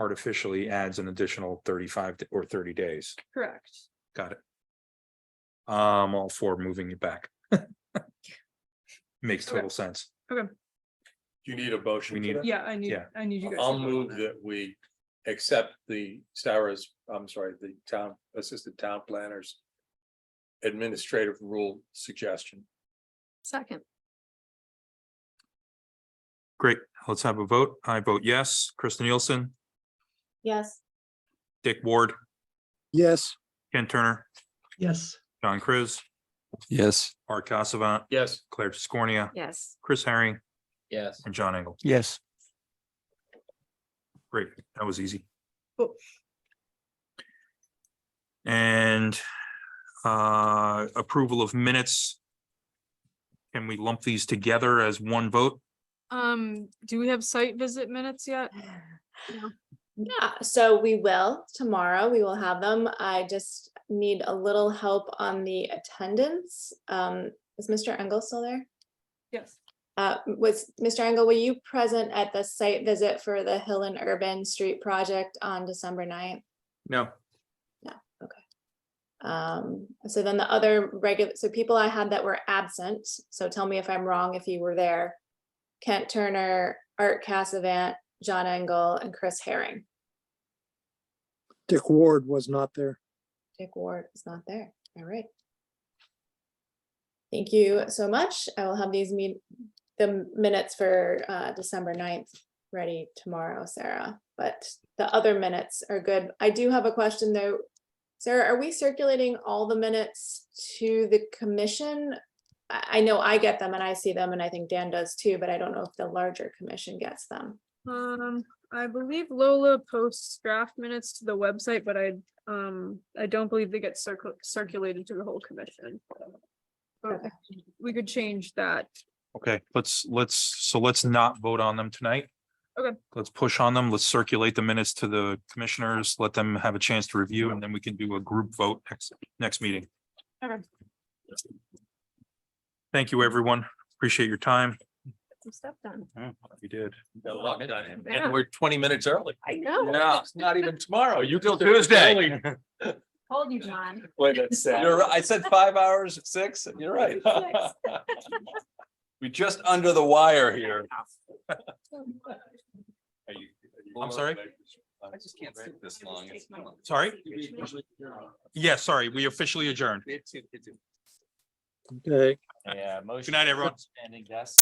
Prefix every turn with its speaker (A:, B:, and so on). A: artificially adds an additional thirty-five d- or thirty days.
B: Correct.
A: Got it. Um, all for moving it back. Makes
B: Okay.
A: total sense.
C: You need a motion.
A: We
C: for
A: need-
C: that?
B: Yeah, I need,
A: Yeah.
B: I need you guys. to
C: I'll
B: vote on
C: move
B: that.
C: that we accept the Sarah's, I'm sorry, the town, assistant town planners. Administrative rule suggestion.
D: Second,
A: Great. Let's have a vote. I vote yes. Kristen Nielsen,
E: yes,
A: Dick Ward,
F: yes,
A: Ken Turner,
G: yes,
A: John Chris,
H: yes,
A: Art Casavant,
C: Yes.
A: Claire Tiscornia,
D: yes.
A: Chris Herring,
I: yes.
A: and John Engel.
F: yes.
A: Great, that was easy.
B: Cool.
A: And uh, approval of minutes. Can we lump these together as one vote?
D: Um, do we have site visit minutes yet?
E: yeah, so we will tomorrow, we will have them, I just need a little help on the attendance. Um, is Mr. Engel still there?
B: Yes.
E: Uh, was, Mr. Engel, were you present at the site visit for the Hill and Urban Street Project on December 9th?
A: No.
E: Um, so then the other regular, so people I had that were absent, so tell me if I'm wrong if you were there. Kent Turner, Art Cassavant, John Engel, and Chris Herring.
F: Dick Ward was not there.
E: Dick Ward is not there. All right. Thank you so much. I will have these meet, the minutes for uh December 9th ready tomorrow, Sarah. But the other minutes are good. I do have a question though. Sarah, are we circulating all the minutes to the commission? I I know I get them and I see them and I think Dan does too, but I don't know if the larger commission gets them.
D: Um, I believe Lola posts draft minutes to the website, but I, um, I don't believe they get circul- circulated to the whole commission. But
E: Okay.
D: We could change that.
A: Okay, let's, let's, so let's not vote on them tonight.
D: Okay.
A: Let's push on them. Let's circulate the minutes to the commissioners, let them have a chance to review, and then we can do a group vote next, next meeting.
D: Okay.
A: Thank you, everyone. Appreciate your time.
D: Some stuff done.
A: You did.
C: Got a lot done,
D: Yeah.
C: And we're twenty minutes early.
D: I know.
C: Yeah, it's not even tomorrow. You till
I: Tuesday.
B: Hold you, John.
C: Wait, that's sad. You're, right. I said five hours, six, you're right. We just under the wire here.
A: I'm sorry?
I: I just can't sit this long. It's-
A: Sorry? Yeah, sorry, we officially adjourned.
I: It's- it's-
F: Okay.
I: Yeah. Good
A: night, everyone.
I: Standing desk.